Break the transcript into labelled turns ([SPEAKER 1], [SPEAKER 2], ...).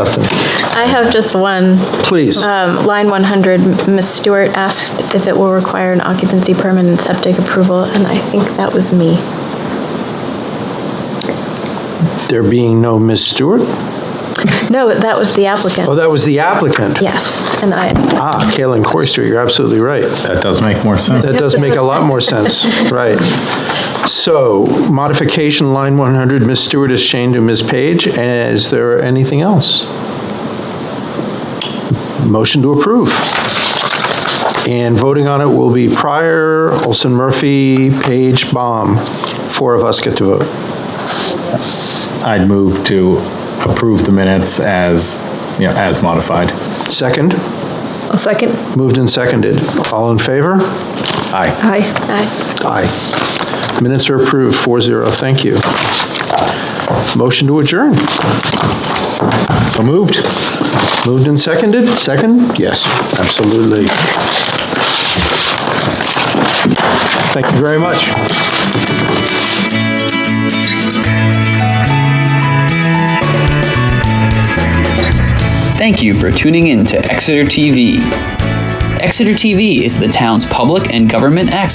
[SPEAKER 1] Nothing.
[SPEAKER 2] I have just one.
[SPEAKER 1] Please.
[SPEAKER 2] Um, Line 100, Ms. Stewart asked if it will require an occupancy permit and septic approval, and I think that was me.
[SPEAKER 1] There being no Ms. Stewart?
[SPEAKER 2] No, that was the
[SPEAKER 1] Oh,
[SPEAKER 2] applicant.
[SPEAKER 1] that was the applicant.
[SPEAKER 2] Yes, and I,
[SPEAKER 1] Ah, Kalen Corster, you're absolutely right.
[SPEAKER 3] That does make more sense.
[SPEAKER 1] That does make a lot more sense, right. So modification line 100, Ms. Stewart is changed to Ms. Page. And Is there anything else? Motion to approve. And voting on it will be Pryor, Olson Murphy, Page, Baum. Four of us get to vote.
[SPEAKER 3] I'd move to approve the minutes as, you know, as modified.
[SPEAKER 1] Second?
[SPEAKER 4] I'll second.
[SPEAKER 1] Moved and seconded. All in favor?
[SPEAKER 3] Aye.
[SPEAKER 4] Aye.
[SPEAKER 2] I,
[SPEAKER 1] Aye. Minutes are approved, 4-0, thank you. Motion to adjourn.
[SPEAKER 3] So moved.
[SPEAKER 1] Moved and seconded? Second? Yes, absolutely. Thank you very much.
[SPEAKER 5] Thank you for tuning in to Exeter TV. Exeter TV is the town's public and government access.